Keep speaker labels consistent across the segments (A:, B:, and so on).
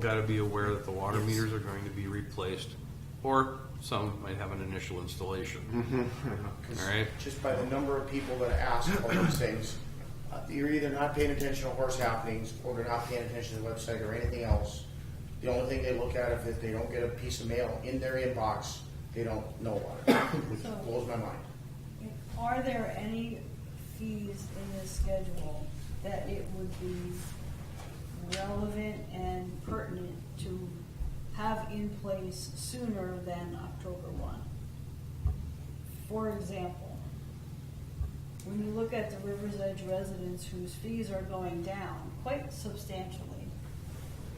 A: got to be aware that the water meters are going to be replaced, or some might have an initial installation. All right?
B: Just by the number of people that ask all these things, uh, you're either not paying attention to horse happenings, or they're not paying attention to the website or anything else. The only thing they look at if they don't get a piece of mail in their inbox, they don't know about it, which
C: So-
B: blows my mind.
C: Are there any fees in this schedule that it would be relevant and pertinent to have in place sooner than October one? For example, when you look at the Rivers Edge residents whose fees are going down quite substantially,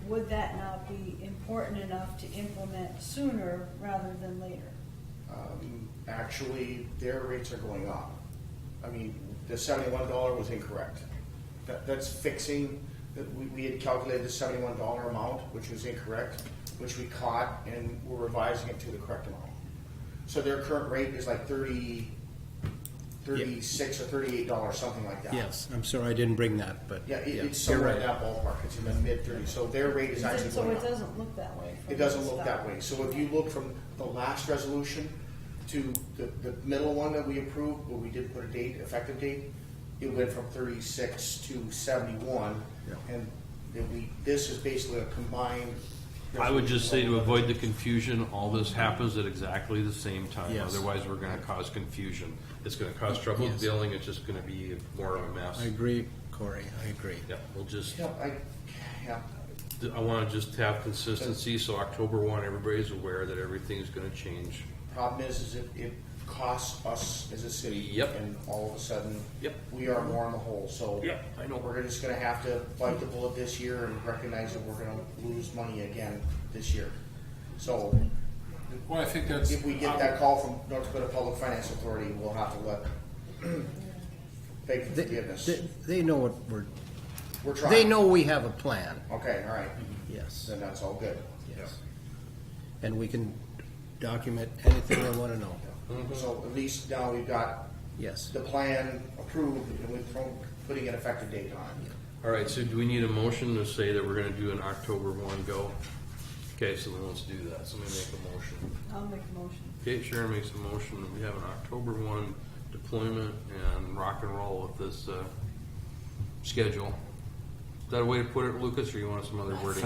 C: would that not be important enough to implement sooner rather than later?
B: Um, Actually, their rates are going up. I mean, the seventy-one dollar was incorrect. That, that's fixing, that we, we had calculated the seventy-one dollar amount, which was incorrect, which we caught and we're revising it to the correct amount. So their current rate is like thirty, thirty-six or thirty-eight dollars, something like that.
D: Yes, I'm sorry I didn't bring that, but.
B: Yeah, it,
D: yeah,
B: it's
D: you're
B: somewhere in
D: right.
B: that ballpark, it's in the mid-thirties, so their rate is actually
C: So
B: going
C: it
B: up.
C: doesn't look that way. from
B: It doesn't
C: the
B: look
C: start.
B: that way. So if you look from the last resolution to the, the middle one that we approved, where we did put a date, effective date, it went from thirty-six to seventy-one.
D: Yeah.
B: And then we, this is basically a combined.
A: I would just say to avoid the confusion, all this happens at exactly the same time.
D: Yes.
A: Otherwise, we're going to cause confusion. It's going to cause trouble
D: Yes.
A: dealing, it's just going to be more of a mess.
D: I agree, Corey, I agree.
A: Yeah, we'll just,
B: Yeah, I, yeah,
A: I want to just have consistency, so October one, everybody's aware that everything's going to change.
B: problem is, is it, it costs us as a city.
A: Yep.
B: And all of a sudden.
A: Yep.
B: We are more in the hole, so.
A: Yep, I know.
B: We're just gonna have to bite the bullet this year and recognize that we're gonna lose money again this year. So,
E: Well, I think that's.
B: If we get that call from North Dakota Public Finance Authority, we'll have to let, beg for
D: They,
B: forgiveness.
D: they- they know what we're,
B: We're trying.
D: they know we have a plan,
B: Okay, all right,
A: Mm-hmm.
D: yes,
B: then that's all good.
D: yes. And we can document anything we wanna know,
A: Mm-hmm.
B: So at least now we've got
D: yes.
B: the plan approved and we're pro- putting an effective date on it.
A: All right, so do we need a motion to say that we're going to do an October one go? Okay, so then let's do that. Somebody make a motion.
C: I'll make a motion.
A: Kate Sharon makes a motion, that we have an October one deployment and rock and roll with this, uh, schedule. Is that a way to put it, Lucas, or you want some other wording?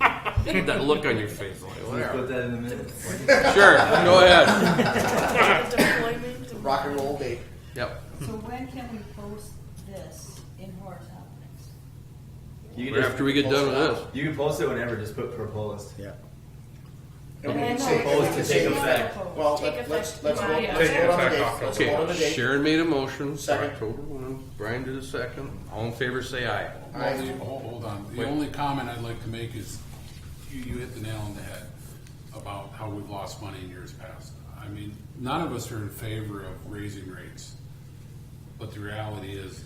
A: That look on your face, like,
F: Put
A: whatever.
F: that in the minutes.
A: Sure, go ahead.
B: Rock and roll date,
A: Yep,
C: So when can we post this in Horace Happenings?
F: You
A: Right
F: can
A: after
F: just,
A: we get done with this.
F: you can post it whenever, just put proposed.
D: Yeah.
B: And we
G: Okay,
B: can
G: no,
B: say-
G: it's
B: we can
F: to
B: say-
F: take effect.
B: Well,
G: Take
B: let- let's,
G: effect
B: let's vote,
G: tomorrow.
B: let's vote on the date, let's vote on the
A: Okay,
B: date.
A: Sharon made a motion, for
B: Second.
A: October one, Brian did a second, all in favor, say aye.
E: Well, the- Hold hold on, the
A: Wait.
E: only comment I'd like to make is, you, you hit the nail on the head about how we've lost money in years past. I mean, none of us are in favor of raising rates, but the reality is,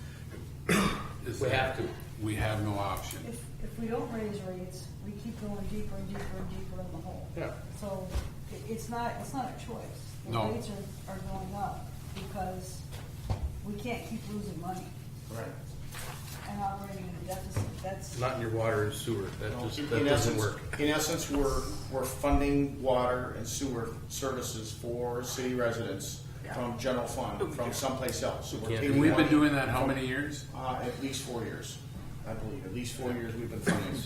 E: is
A: We
E: that
A: have to.
E: We have no option.
C: If, if we don't raise rates, we keep going deeper and deeper and deeper in the hole.
A: Yeah.
C: So i- it's not, it's not a choice. The
E: No.
C: Rates are, are going up because we can't keep losing money
B: Right.
C: and operating in a deficit. That's,
A: Not in your water and sewer, that
B: No,
A: just,
B: in-
A: that
B: in
A: doesn't
B: essence-
A: work.
B: In essence, we're, we're funding water and sewer services for city residents from general fund, from someplace else. So we're
A: Yeah.
B: taking
E: And we've been
B: money,
E: doing that how many years?
B: Uh, at least four years, I believe, at least four years we've been funding,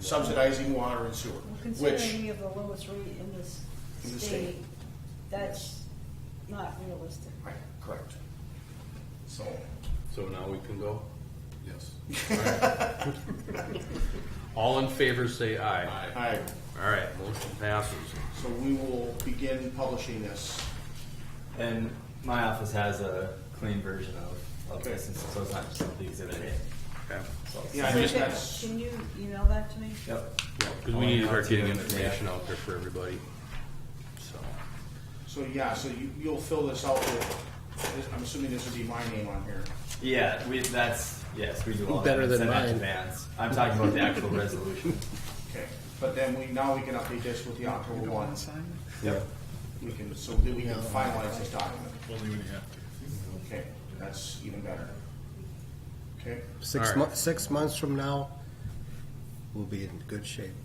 B: subsidizing water and sewer,
C: we're
B: which,
C: considering we have the lowest rate in this
B: In the
C: state.
B: state.
C: That's not realistic.
B: right, correct. So,
A: So now we can go?
E: Yes.
A: All in favor, say aye.
E: Aye.
B: I,
A: All right, motion passes.
B: so we will begin publishing this.
F: And my office has a clean version of, of this, and so it's not just the exhibit A.
A: Okay.
F: So it's-
B: Yeah, I just, that's,
C: Can you email that to me?
F: Yep.
A: Because we need to start getting information out there for everybody, so.
B: so yeah, so you, you'll fill this out with, I'm assuming this would be my name on here.
F: Yeah, we, that's, yes, we do all that.
D: Better
F: We
D: than
F: send that to
D: mine.
F: Vance. I'm talking about the actual resolution.
B: Okay, but then we, now we can update this with the October one.
F: Yep.
B: We can, so that we can finalize this document. Okay, that's even better. Okay?
D: Six
A: All
D: mo-
A: right.
D: six months from now, we'll be in good shape.